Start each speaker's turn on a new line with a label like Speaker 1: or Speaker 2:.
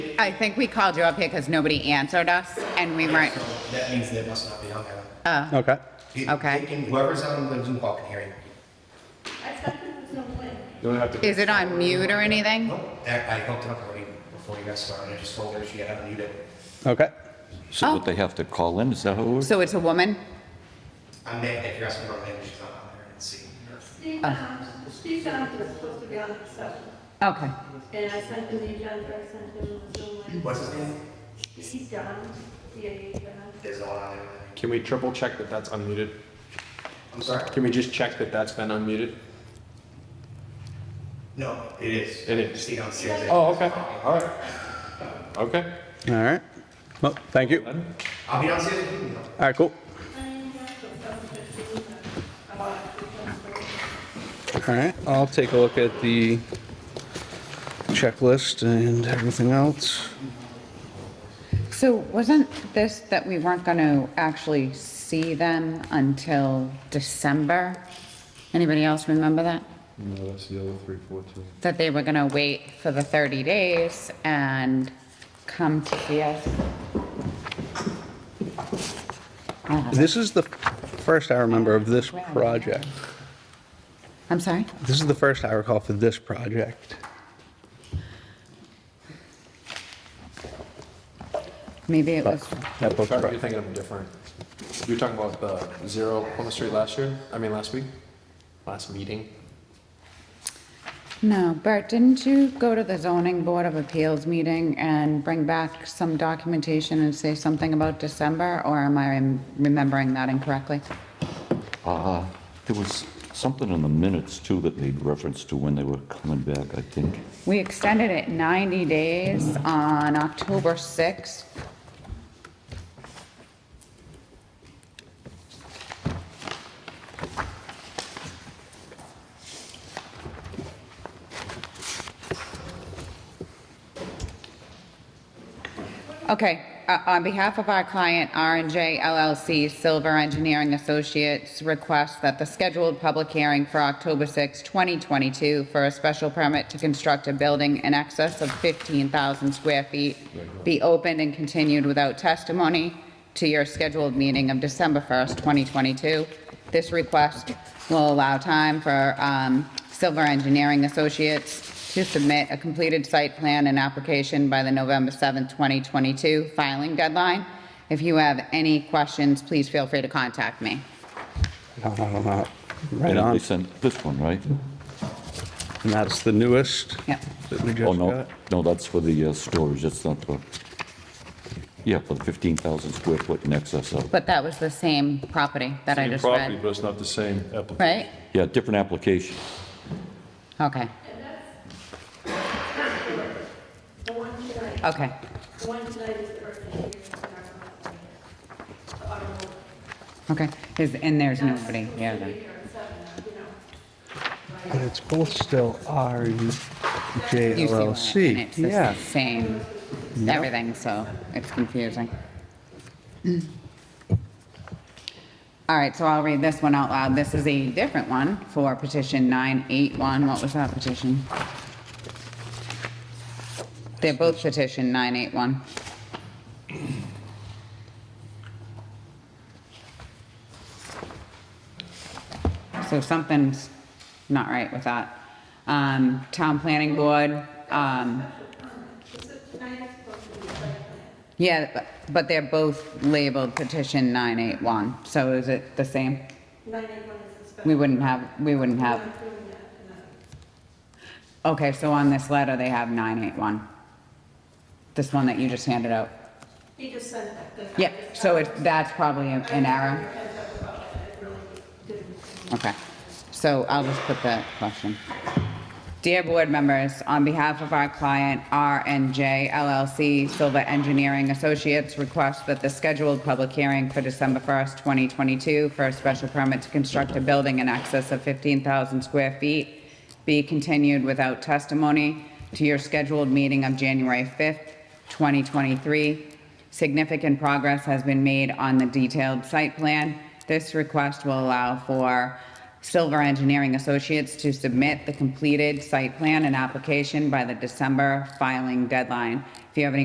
Speaker 1: I think we called you up here because nobody answered us and we weren't, uh,
Speaker 2: So that means they must not be on there.
Speaker 3: Okay.
Speaker 2: He-
Speaker 1: Okay.
Speaker 2: they can- Whoever's on the Zoom call can hear you.
Speaker 4: don't have to.
Speaker 1: is it on mute or anything?
Speaker 2: Nope, that- I hooked it up already before you guys started, I just told her she had to mute it.
Speaker 3: Okay.
Speaker 5: So
Speaker 1: Oh.
Speaker 5: would they have to call in, is that how it works?
Speaker 1: So it's a woman?
Speaker 2: I'm, na- if you're asking her name, she's not on there, and see.
Speaker 6: Steve, um, Steve Johnson was supposed to be on the session,
Speaker 1: Okay.
Speaker 6: and I sent him the agenda, I sent him the Zoom link.
Speaker 2: What's his name?
Speaker 6: He's John, D A John.
Speaker 2: There's no one on there.
Speaker 4: Can we triple check that that's unmuted?
Speaker 2: I'm sorry?
Speaker 4: Can we just check that that's been unmuted?
Speaker 2: No, it is.
Speaker 4: It is.
Speaker 2: Steve downstairs.
Speaker 4: Oh, okay, all right. Okay.
Speaker 3: All right. Well, thank you. All
Speaker 4: Then,
Speaker 2: I'll be downstairs if you need me.
Speaker 3: right, cool. All right, I'll take a look at the checklist and everything else.
Speaker 1: So wasn't this that we weren't going to actually see them until December? Anybody else remember that?
Speaker 4: No, that's the other three, four, two.
Speaker 1: That they were going to wait for the 30 days and come to see us?
Speaker 3: This is the first I remember of this project.
Speaker 1: I'm sorry?
Speaker 3: This is the first I recall for this project.
Speaker 1: Maybe it was,
Speaker 3: That book's
Speaker 4: Sorry,
Speaker 3: right.
Speaker 4: you're thinking of a different. You're talking about the zero Plymouth Street last year, I mean, last week, last meeting?
Speaker 1: no, Bert, didn't you go to the zoning board of appeals meeting and bring back some documentation and say something about December? Or am I rem- remembering that incorrectly?
Speaker 3: Uh-huh.
Speaker 5: Uh, There was something in the minutes too that made reference to when they were coming back, I think.
Speaker 1: We extended it 90 days on October 6th. Okay, uh, on behalf of our client, r and J LLC Silver Engineering Associates requests that the scheduled public hearing for October 6, 2022 for a special permit to construct a building in excess of 15,000 square feet be opened and continued without testimony to your scheduled meeting of December 1st, 2022. This request will allow time for um, Silver Engineering Associates to submit a completed site plan and application by the November 7th, 2022 filing deadline. If you have any questions, please feel free to contact me.
Speaker 3: No, no, no, no. Right
Speaker 5: And
Speaker 3: on.
Speaker 5: they sent this one, right?
Speaker 3: And that's the newest
Speaker 1: Yep.
Speaker 3: that we
Speaker 5: Oh,
Speaker 3: just
Speaker 5: no,
Speaker 3: got.
Speaker 5: no, that's for the uh, storage, that's not the, yeah, for the 15,000 square foot in excess of.
Speaker 1: But that was the same property that I
Speaker 7: Same
Speaker 1: just
Speaker 7: property,
Speaker 1: read,
Speaker 7: but it's not the same application.
Speaker 1: right?
Speaker 5: Yeah, different application.
Speaker 1: Okay.
Speaker 6: The one tonight,
Speaker 1: Okay.
Speaker 6: the one tonight is the earth issue, it's not on the- the automobile.
Speaker 1: Okay. Is, and there's nobody here then.
Speaker 3: But it's both still
Speaker 1: You see what I mean?
Speaker 3: RUJLLC.
Speaker 1: It's
Speaker 3: Yeah.
Speaker 1: the same, everything, so it's confusing. All right, so I'll read this one out loud. This is a different one for petition 981. What was that petition? They're both petition 981. So something's not right with that. Um, Town Planning Board, um, yeah, but- but they're both labeled petition 981, so is it the same?
Speaker 6: Nine eight one is the special.
Speaker 1: We wouldn't have, we wouldn't have,
Speaker 6: I'm doing that tonight.
Speaker 1: okay, so on this letter, they have 981. This one that you just handed out.
Speaker 6: He just sent that. that I
Speaker 1: Yeah,
Speaker 6: just-
Speaker 1: so it, that's probably a- an error. Okay, so I'll just put that question. Dear board members, on behalf of our client, R and J LLC Silva Engineering Associates, request that the scheduled public hearing for December 1st, 2022 for a special permit to construct a building in excess of 15,000 square feet be continued without testimony to your scheduled meeting of January 5th, 2023. Significant progress has been made on the detailed site plan. This request will allow for Silver Engineering Associates to submit the completed site plan and application by the December filing deadline. If you have any